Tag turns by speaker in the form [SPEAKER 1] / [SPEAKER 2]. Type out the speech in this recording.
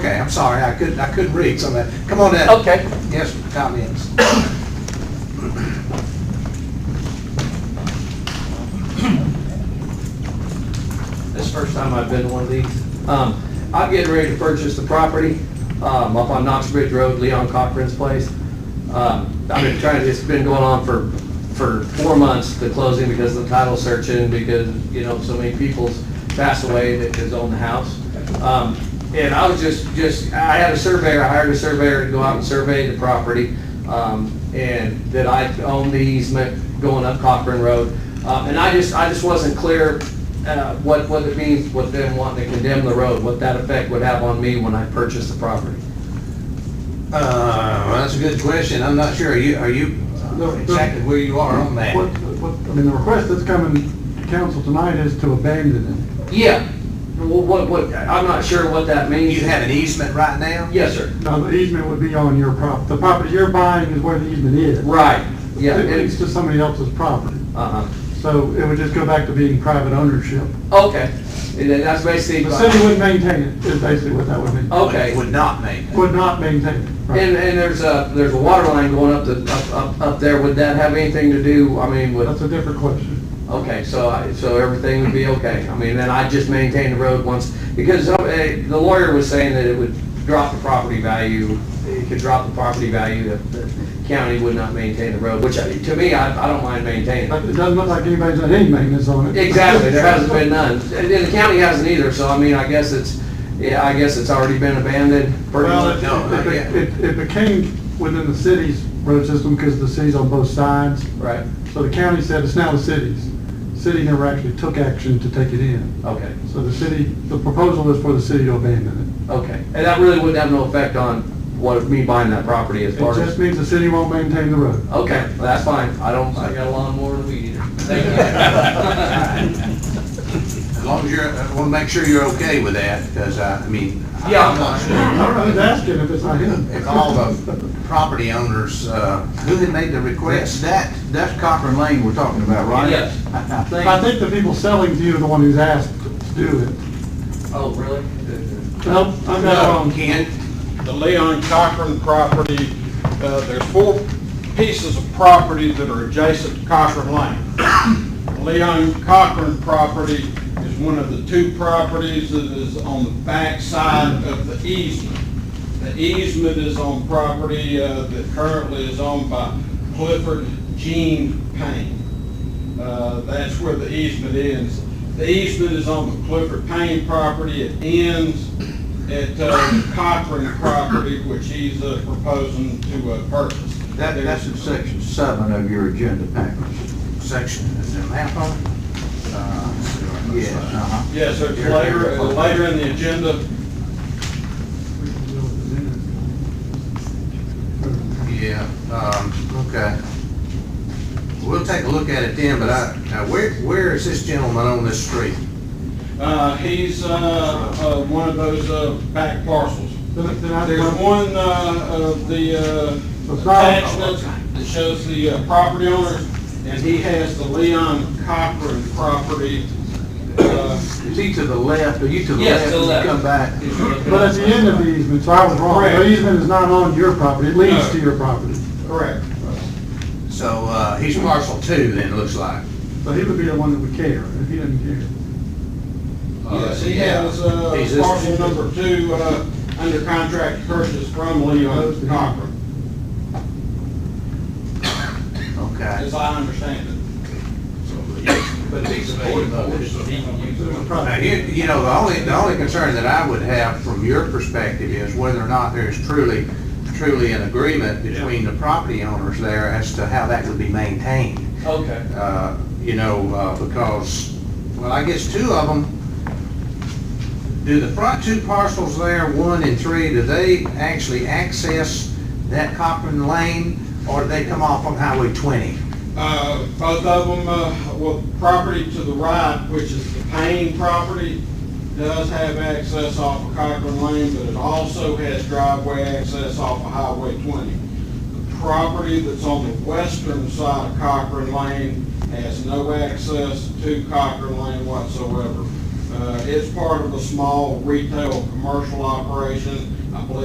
[SPEAKER 1] Okay, I'm sorry, I couldn't, I couldn't read some of that. Come on in.
[SPEAKER 2] Okay.
[SPEAKER 1] Yes, comments.
[SPEAKER 2] This is the first time I've been to one of these. Um, I'm getting ready to purchase the property, um, up on Knox Bridge Road, Leon Cochran's place. Um, I've been trying, it's been going on for, for four months, the closing, because of the title searching, because, you know, so many people's passed away that has owned the house. Um, and I was just, just, I had a surveyor, I hired a surveyor to go out and survey the property, um, and that I own the easement going up Cochran Road. Um, and I just, I just wasn't clear, uh, what, what it means with them wanting to condemn the road, what that effect would have on me when I purchase the property.
[SPEAKER 1] Uh, well, that's a good question. I'm not sure. Are you, are you
[SPEAKER 3] No, no.
[SPEAKER 1] exactly where you are on that?
[SPEAKER 3] What, what, I mean, the request that's coming to council tonight is to abandon
[SPEAKER 2] Yeah, Well, what, what, I'm not sure what that means.
[SPEAKER 1] You have an easement right now?
[SPEAKER 2] Yes, sir.
[SPEAKER 3] it. Now, the easement would be on your prop, the property you're buying is where the easement is.
[SPEAKER 2] Right, yeah,
[SPEAKER 3] It- It's
[SPEAKER 2] it's,
[SPEAKER 3] to somebody else's property,
[SPEAKER 2] uh-huh,
[SPEAKER 3] so it would just go back to being private ownership.
[SPEAKER 2] okay, And then that's basically.
[SPEAKER 3] The city would maintain it, is basically what that would mean.
[SPEAKER 2] Okay.
[SPEAKER 1] Would not make. it.
[SPEAKER 3] Would not maintain it.
[SPEAKER 2] And,
[SPEAKER 3] right.
[SPEAKER 2] Oh. and there's a, there's a water line going up the, up, up, up there, would that have anything to do, I mean,
[SPEAKER 3] That's
[SPEAKER 2] with,
[SPEAKER 3] a different question.
[SPEAKER 2] okay, so I, so everything would be okay? I mean, then I just maintain the road once, because uh, eh, the lawyer was saying that it would drop the property value, it could drop the property value, that the county would not maintain the road, which, I- to me, I, I don't mind maintaining.
[SPEAKER 3] But it doesn't look like anybody's done any maintenance on it.
[SPEAKER 2] Exactly, there hasn't been none, and and the county hasn't either, so I mean, I guess it's, yeah, I guess it's already been abandoned. pretty
[SPEAKER 3] Well,
[SPEAKER 2] much.
[SPEAKER 3] it-
[SPEAKER 1] No, not yet.
[SPEAKER 3] it, it, it became within the city's road system because the city's on both sides.
[SPEAKER 2] Right,
[SPEAKER 3] So the county said it's now the city's. City never actually took action to take it in.
[SPEAKER 2] okay.
[SPEAKER 3] So the city, the proposal is for the city to abandon
[SPEAKER 2] Okay, and that really wouldn't have no effect on what, me buying that property as
[SPEAKER 3] it. It
[SPEAKER 2] far
[SPEAKER 3] just
[SPEAKER 2] as?
[SPEAKER 3] means the city won't maintain the road.
[SPEAKER 2] Okay, that's fine, I don't, I got a lawnmower and a weed eater. Thank you.
[SPEAKER 1] As long as you're, I want to make sure you're okay with that, because I, I mean. I-
[SPEAKER 2] Yeah.
[SPEAKER 1] I'm not
[SPEAKER 3] I
[SPEAKER 1] sure.
[SPEAKER 3] don't know who's asking if it's not him.
[SPEAKER 1] If all the property owners, uh, who had made the request?
[SPEAKER 4] That, that's Cochran Lane we're talking about, right?
[SPEAKER 2] Yes.
[SPEAKER 4] I I
[SPEAKER 3] I
[SPEAKER 4] think,
[SPEAKER 3] think the people selling to you are the one who's asked to do it.
[SPEAKER 2] Oh, really?
[SPEAKER 3] Nope, I'm not wrong.
[SPEAKER 1] Ken?
[SPEAKER 5] the Leon Cochran property, uh, there's four pieces of property that are adjacent to Cochran Lane. Leon Cochran property is one of the two properties that is on the back side of the easement. The easement is on property uh, that currently is owned by Clifford Gene Payne. Uh, That's where the easement ends. The easement is on the Clifford Payne property. It ends at uh, Cochran property, which he's uh, proposing to uh, purchase.
[SPEAKER 4] that, that's in section seven of your agenda package.
[SPEAKER 1] Section, is it map on? it? Uh,
[SPEAKER 4] Yes, uh-huh.
[SPEAKER 5] Yes, sir, it's later, uh, later in the agenda.
[SPEAKER 1] Yeah, um, okay. We'll take a look at it then, but I, now where, where is this gentleman on this street?
[SPEAKER 5] Uh, He's uh, uh, one of those uh, back parcels.
[SPEAKER 3] Then- then I-
[SPEAKER 5] There's one uh, of the uh,
[SPEAKER 3] That's not-
[SPEAKER 5] attachments that shows the uh, property owner, and he has the Leon Cochran property. uh,
[SPEAKER 4] Is he to the left, are you to the left?
[SPEAKER 2] Yes, to
[SPEAKER 4] when you
[SPEAKER 2] the left.
[SPEAKER 4] Come back.
[SPEAKER 3] But at the end of the easement, so I was wrong. The
[SPEAKER 5] Correct.
[SPEAKER 3] easement is not on your property, it leads
[SPEAKER 5] No.
[SPEAKER 3] to your property.
[SPEAKER 5] Correct.
[SPEAKER 1] So, uh, he's parcel two then, it looks like.
[SPEAKER 3] So he would be the one that would care, if he didn't care.
[SPEAKER 5] Yes, he has uh,
[SPEAKER 1] He's this-
[SPEAKER 5] parcel number two uh, under contract purchase from Leon Cochran,
[SPEAKER 1] Okay.
[SPEAKER 5] as I understand it.
[SPEAKER 1] But he's supportive of it. Now,
[SPEAKER 3] Probably.
[SPEAKER 1] you, you know, the only, the only concern that I would have from your perspective is whether or not there's truly, truly an agreement between the property owners there as to how that would be maintained.
[SPEAKER 2] Okay,
[SPEAKER 1] uh, you know, uh, because, well, I guess two of them, do the front two parcels there, one and three, do they actually access that Cochran Lane, or do they come off on Highway 20?
[SPEAKER 5] Uh, Both of them, uh, well, property to the right, which is the Payne property, does have access off of Cochran Lane, but it also has driveway access off of Highway 20. The property that's on the western side of Cochran Lane has no access to Cochran Lane whatsoever. Uh, It's part of a small retail commercial operation. I believe